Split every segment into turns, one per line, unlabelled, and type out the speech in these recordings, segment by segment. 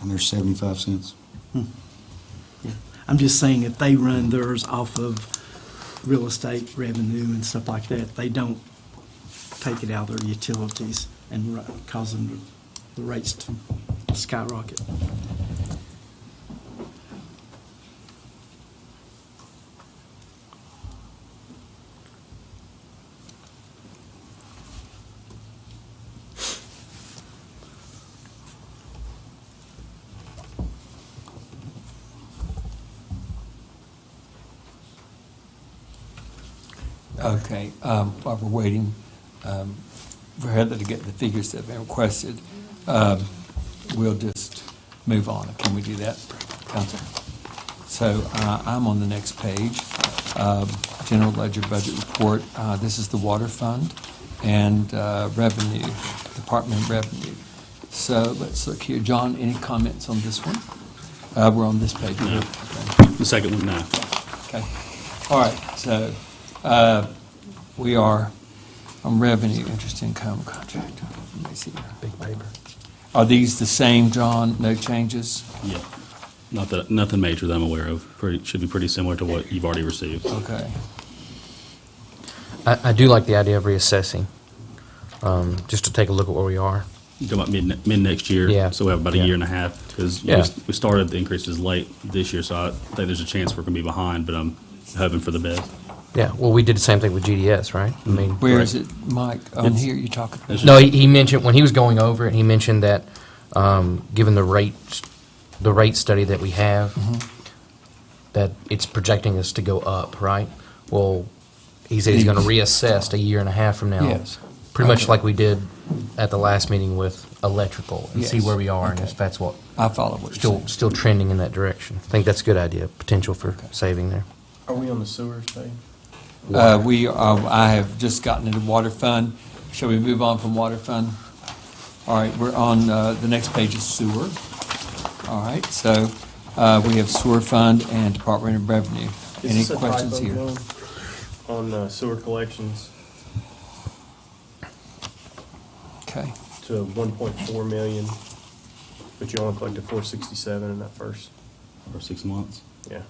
and they're seventy-five cents.
I'm just saying that they run theirs off of real estate revenue and stuff like that. They don't take it out of their utilities and ru- cause them, to- the rates to skyrocket.
Okay, um, while we're waiting um, for Heather to get the figures that have been requested, um, we'll just move on. Can we do that, Council? So uh, I'm on the next page, um, General Ledger Budget Report. Uh, This is the Water Fund and uh, Revenue, Department of Revenue. So let's look here. John, any comments on this one? Uh, We're on this page.
No.
Okay.
The second one, no.
Okay, all right, so, uh, we are on revenue, interest income contract. Let me see here. Big paper. Are these the same, John? No changes?
Yeah. Not that, nothing major that I'm aware of. Pretty, should be pretty similar to what you've already received.
Okay,
I, I do like the idea of reassessing, um, just to take a look at where we are.
You talking about mid, mid next year?
Yeah.
So we have about a
Yeah.
year and a half, because
Yeah.
we started the increases late this year, so I think there's a chance we're gonna be behind, but I'm hoping for the best.
Yeah, well, we did the same thing with GDS, right? I mean,
where is it, Mike? On
It's-
here, you're talking?
It's
No, he, he mentioned, when he was going over it, he mentioned that, um, given the rate, the rate study that we have,
Mm-hmm.
that it's projecting us to go up, right? Well, he said he's gonna reassess a year and a half from now.
Yes.
Pretty much
Okay.
like we did at the last meeting with electrical, and see
Yes.
where we are, and
Okay.
if that's what,
I follow what you're
still,
saying.
still trending in that direction. I think that's a good idea, potential for saving there.
Are we on the sewers page?
Uh, we, uh, I have just gotten into water fund. Shall we move on from water fund? All right, we're on, uh, the next page is sewer. All right, so, uh, we have sewer fund and Department of Revenue. Any
Is this a
questions
typo,
here?
Dylan? On uh, sewer collections
Okay,
to one point four million, but you only collected four sixty-seven in that first,
For six months.
yeah.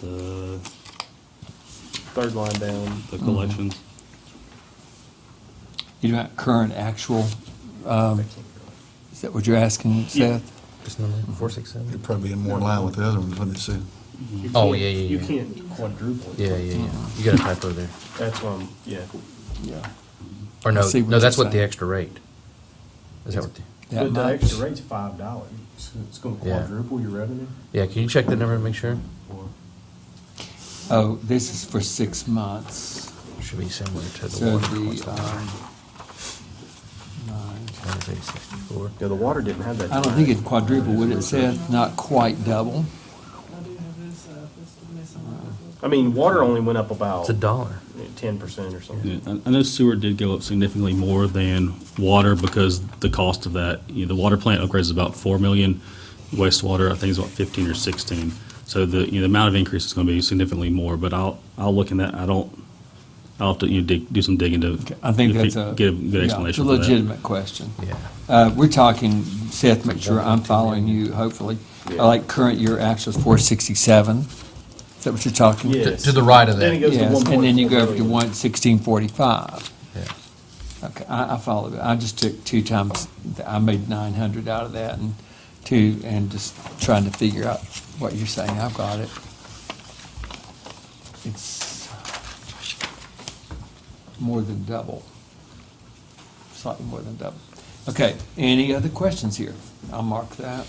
The,
Third line down,
Mm-hmm.
the collections.
you don't have current actual, um, is that what you're asking, Seth?
Just number four, six, seven?
It'd probably be more in line with the other ones, wouldn't it, Sue?
You
Oh,
can't-
yeah, yeah,
You
yeah.
can't quadruple it.
Yeah, yeah, yeah.
Hmm.
You got a typo there.
That's why, I'm- yeah.
Yeah.
Or
I
no,
see what
no, that's
you're
what the
saying.
extra rate. Is that what the,
That
But the
much?
extra rate's five dollars, it's gonna
Yeah.
quadruple your revenue?
yeah, can you check that number and make sure?
Or-
Oh, this is for six months,
Should be similar to the
so
water.
the,
cost.
uh,
um, nine,
Times 864.
Yeah, the water didn't have that.
I don't think
line.
it quadrupled, would it, Seth? Not quite double?
I do have this, uh, this missing.
I mean, water only went up about
It's a dollar.
ten percent or something.
Yeah, I I know sewer did go up significantly more than water because the cost of that, you know, the water plant upgrades is about four million. Wastewater, I think is about fifteen or sixteen. So the, you know, the amount of increase is gonna be significantly more, but I'll, I'll look in that, I don't, I'll have to, you know, dig, do some digging to.
I think
to fi-
that's a.
Get a
yeah,
good
it's
explanation
a
for that.
Legitimate question.
Yeah.
Uh, we're talking, Seth, make sure I'm following you, hopefully.
Yeah.
Like current year actual is four sixty-seven? Is that what you're talking?
Yeah.
To, to the right of
Then it
that.
goes to
Yes,
one
and then you
point
go
four
up to
million.
one sixteen forty-five.
Yeah.
Okay, I, I follow it. I just took two times, I made nine hundred out of that and two, and just trying to figure out what you're saying. I've got it. It's more than double. Slightly more than double. Okay, any other questions here? I'll mark that.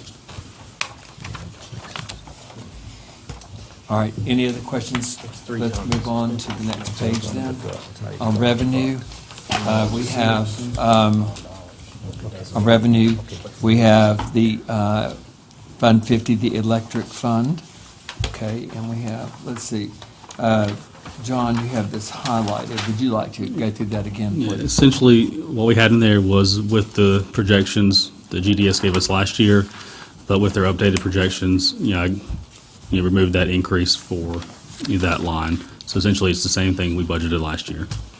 All right, any other questions?
It's three
Let's
times.
move on to the next page then. On revenue, uh, we have, um, on revenue, we have the uh, Fund 50, the electric fund, okay? And we have, let's see, uh, John, you have this highlighted. Would you like to go through that again,
Yeah,
please?
Essentially, what we had in there was with the projections that GDS gave us last year, but with their updated projections, you know, I, you know, removed that increase for you know, that line. So essentially, it's the same thing we budgeted last year.
Uh-huh.